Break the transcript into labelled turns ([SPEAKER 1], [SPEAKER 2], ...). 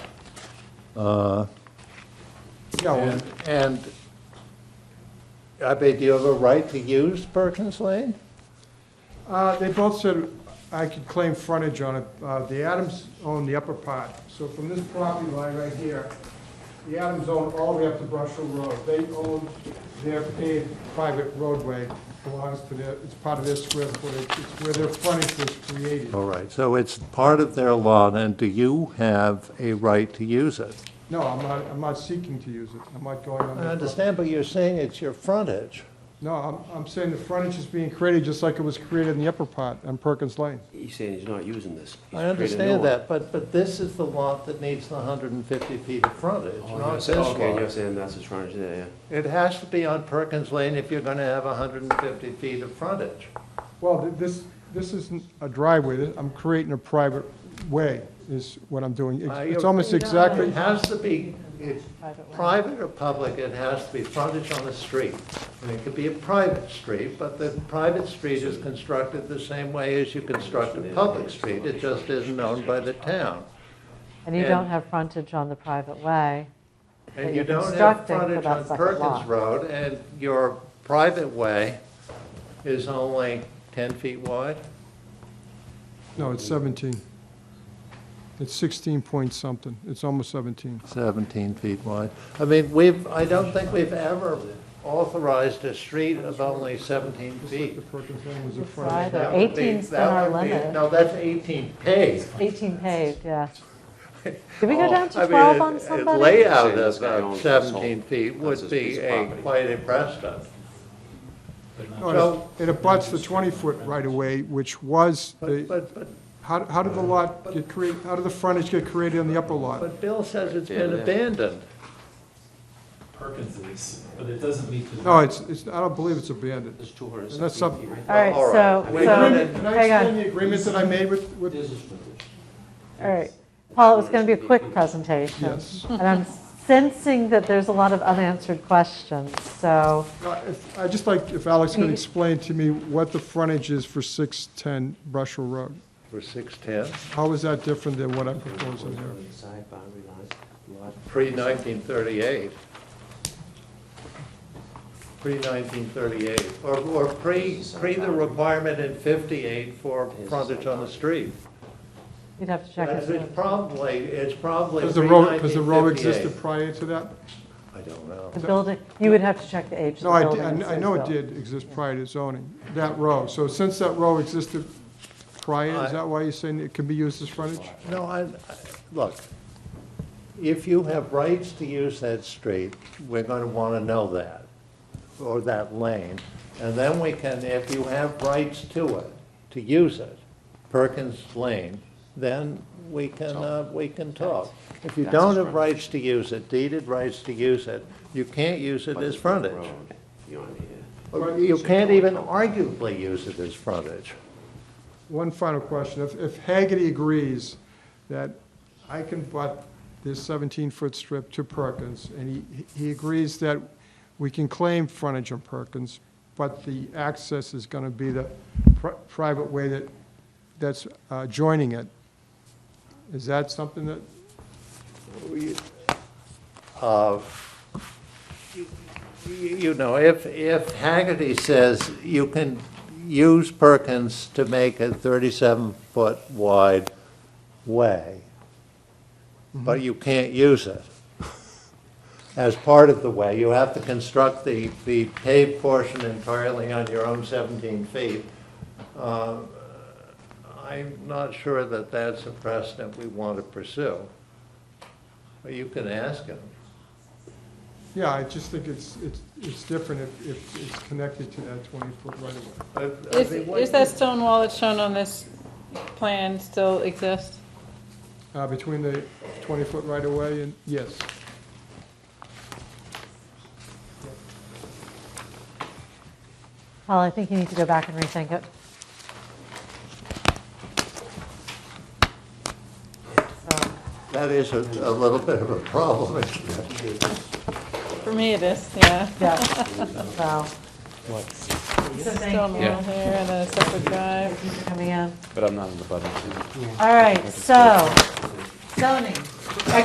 [SPEAKER 1] Yeah, well,
[SPEAKER 2] Uh, And- And, I bet you have a right to use Perkins Lane?
[SPEAKER 1] uh, they both said I could claim frontage on it. Uh, The Adams own the upper part, so from this property line right here, the Adams own all the way up to Brushell Road. They own their paved private roadway, belongs to their, it's part of their square footage, it's where their frontage was created.
[SPEAKER 2] All right, so it's part of their lot, and do you have a right to use it?
[SPEAKER 1] No, I'm not, I'm not seeking to use it, I'm not going on
[SPEAKER 2] I
[SPEAKER 1] their property.
[SPEAKER 2] understand, but you're saying it's your frontage.
[SPEAKER 1] No, I'm, I'm saying the frontage is being created just like it was created in the upper part on Perkins Lane.
[SPEAKER 3] He's saying he's not using this. He's
[SPEAKER 2] I
[SPEAKER 3] creating a new
[SPEAKER 2] understand
[SPEAKER 3] one.
[SPEAKER 2] that, but, but this is the lot that needs the 150 feet of frontage,
[SPEAKER 3] Oh,
[SPEAKER 2] not
[SPEAKER 3] yes.
[SPEAKER 2] this lot.
[SPEAKER 3] Okay, you're saying that's his frontage there, yeah.
[SPEAKER 2] It has to be on Perkins Lane if you're gonna have 150 feet of frontage.
[SPEAKER 1] Well, th- this, this isn't a driveway, This- I'm creating a private way, is what I'm doing.
[SPEAKER 2] Uh,
[SPEAKER 1] It's- It's
[SPEAKER 2] you-
[SPEAKER 1] almost exactly,
[SPEAKER 2] It has to be, it's private or public, it has to be frontage on a street. And it could be a private street, but the private street is constructed the same way as you construct a public street. It just isn't owned by the town.
[SPEAKER 4] And you
[SPEAKER 2] And-
[SPEAKER 4] don't have frontage on the private way.
[SPEAKER 2] And
[SPEAKER 4] But
[SPEAKER 2] you
[SPEAKER 4] you're
[SPEAKER 2] don't have
[SPEAKER 4] constructing for
[SPEAKER 2] frontage
[SPEAKER 4] that
[SPEAKER 2] on
[SPEAKER 4] second
[SPEAKER 2] Perkins
[SPEAKER 4] lot.
[SPEAKER 2] Road, and your private way is only 10 feet wide?
[SPEAKER 1] no, it's 17. It's 16 point something, it's almost 17.
[SPEAKER 2] 17 feet wide. I mean, we've, I don't think we've ever authorized a street of only 17 feet.
[SPEAKER 1] The Perkins Lane was a
[SPEAKER 4] It's
[SPEAKER 1] frontage.
[SPEAKER 4] either
[SPEAKER 2] That would be-
[SPEAKER 4] 18's been
[SPEAKER 2] that
[SPEAKER 4] our
[SPEAKER 2] would be-
[SPEAKER 4] limit.
[SPEAKER 2] No, that's 18 paved.
[SPEAKER 4] 18 paved, yeah. Did we go down
[SPEAKER 2] Oh, I
[SPEAKER 4] to
[SPEAKER 2] mean,
[SPEAKER 4] 12
[SPEAKER 2] a-
[SPEAKER 4] on
[SPEAKER 2] A
[SPEAKER 4] somebody?
[SPEAKER 2] layout
[SPEAKER 3] This
[SPEAKER 2] of
[SPEAKER 3] guy
[SPEAKER 2] uh,
[SPEAKER 3] owns this whole-
[SPEAKER 2] 17 feet
[SPEAKER 3] that's
[SPEAKER 2] would
[SPEAKER 3] his
[SPEAKER 2] be
[SPEAKER 3] piece of
[SPEAKER 2] a
[SPEAKER 3] property.
[SPEAKER 2] quite impressive.
[SPEAKER 1] No, it-
[SPEAKER 2] So-
[SPEAKER 1] It abuts the 20-foot right-of-way, which was,
[SPEAKER 2] But,
[SPEAKER 1] the.
[SPEAKER 2] but, but,
[SPEAKER 1] how how did the lot get created, how did the frontage get created on the upper lot?
[SPEAKER 2] but Bill says it's
[SPEAKER 3] Yeah,
[SPEAKER 2] been
[SPEAKER 3] yeah.
[SPEAKER 2] abandoned.
[SPEAKER 5] Perkins is, but it doesn't meet the.
[SPEAKER 1] No, it's, it's, Oh, I don't believe it's abandoned.
[SPEAKER 3] There's two hundred and
[SPEAKER 1] That's
[SPEAKER 3] sixty
[SPEAKER 1] up-
[SPEAKER 3] feet right
[SPEAKER 4] All right,
[SPEAKER 2] All
[SPEAKER 4] so,
[SPEAKER 2] right. Wait,
[SPEAKER 4] so,
[SPEAKER 2] minute.
[SPEAKER 1] Can I
[SPEAKER 4] hang
[SPEAKER 1] explain
[SPEAKER 4] on,
[SPEAKER 1] the agreement that I made with,
[SPEAKER 3] there.
[SPEAKER 1] with,
[SPEAKER 3] There's his frontage.
[SPEAKER 4] all right. Paul, it was going to be a quick presentation.
[SPEAKER 1] yes.
[SPEAKER 4] And I'm sensing that there's a lot of unanswered questions, so,
[SPEAKER 1] Uh, if- I'd just like if Alex could
[SPEAKER 4] Maybe-
[SPEAKER 1] explain to me what the frontage is for 610 Brushell Road.
[SPEAKER 2] For 610,
[SPEAKER 1] How is that different than what I'm proposing here?
[SPEAKER 3] On the Side boundary line, lot.
[SPEAKER 2] pre-1938. Pre-1938, or, or pre, pre the requirement in 58 for frontage on the street.
[SPEAKER 4] you'd have to check
[SPEAKER 2] That's-
[SPEAKER 4] it.
[SPEAKER 2] It's probably, it's probably
[SPEAKER 1] Does the road,
[SPEAKER 2] pre-1958.
[SPEAKER 1] does the road existed prior to that?
[SPEAKER 2] I don't know.
[SPEAKER 4] The building, you would have to check the age of the
[SPEAKER 1] No, I,
[SPEAKER 4] building.
[SPEAKER 1] di-
[SPEAKER 4] and
[SPEAKER 1] I I
[SPEAKER 4] so
[SPEAKER 1] know it
[SPEAKER 4] so.
[SPEAKER 1] did exist prior to zoning, that row. So since that row existed prior,
[SPEAKER 2] I-
[SPEAKER 1] is that why you're saying it can be used as frontage?
[SPEAKER 2] No, I, I- look, if you have rights to use that street, we're going to want to know that, or that lane. And then we can, if you have rights to it, to use it, Perkins Lane, then we can, uh, we can talk. If you don't have rights to use it, deeded rights to use it, you can't use it as frontage.
[SPEAKER 3] Road, Beyond here.
[SPEAKER 2] Or You can't even arguably use it as frontage.
[SPEAKER 1] One final question. If, if Hagerty agrees that I can butt this 17-foot strip to Perkins, and he, he agrees that we can claim frontage on Perkins, but the access is going to be the pri- private way that, that's uh, joining it, is that something that,
[SPEAKER 2] You know, if, if Haggerty says you can use Perkins to make a 37-foot wide way, but you can't use it as part of the way, you have to construct the, the paved portion entirely on your own 17 feet, uh, I'm not sure that that's a precedent we want to pursue. But you can ask him.
[SPEAKER 1] yeah, I just think it's, it's, it's different if, if it's connected to that 20-foot right-of-way.
[SPEAKER 2] I- I
[SPEAKER 6] Is,
[SPEAKER 2] mean, what-
[SPEAKER 6] is that stone wall that's shown on this plan still exist?
[SPEAKER 1] Uh, Between the 20-foot right-of-way and, yes.
[SPEAKER 4] Paul, I think you need to go back and rethink it. So,
[SPEAKER 2] That is a, a little bit of a problem, isn't it?
[SPEAKER 6] For me it is, yeah.
[SPEAKER 4] Yeah, so,
[SPEAKER 6] There's a stone
[SPEAKER 7] Yeah.
[SPEAKER 6] wall here and a separate drive.
[SPEAKER 4] thanks for coming in.
[SPEAKER 7] But I'm not in the button.
[SPEAKER 4] All right, so, zoning.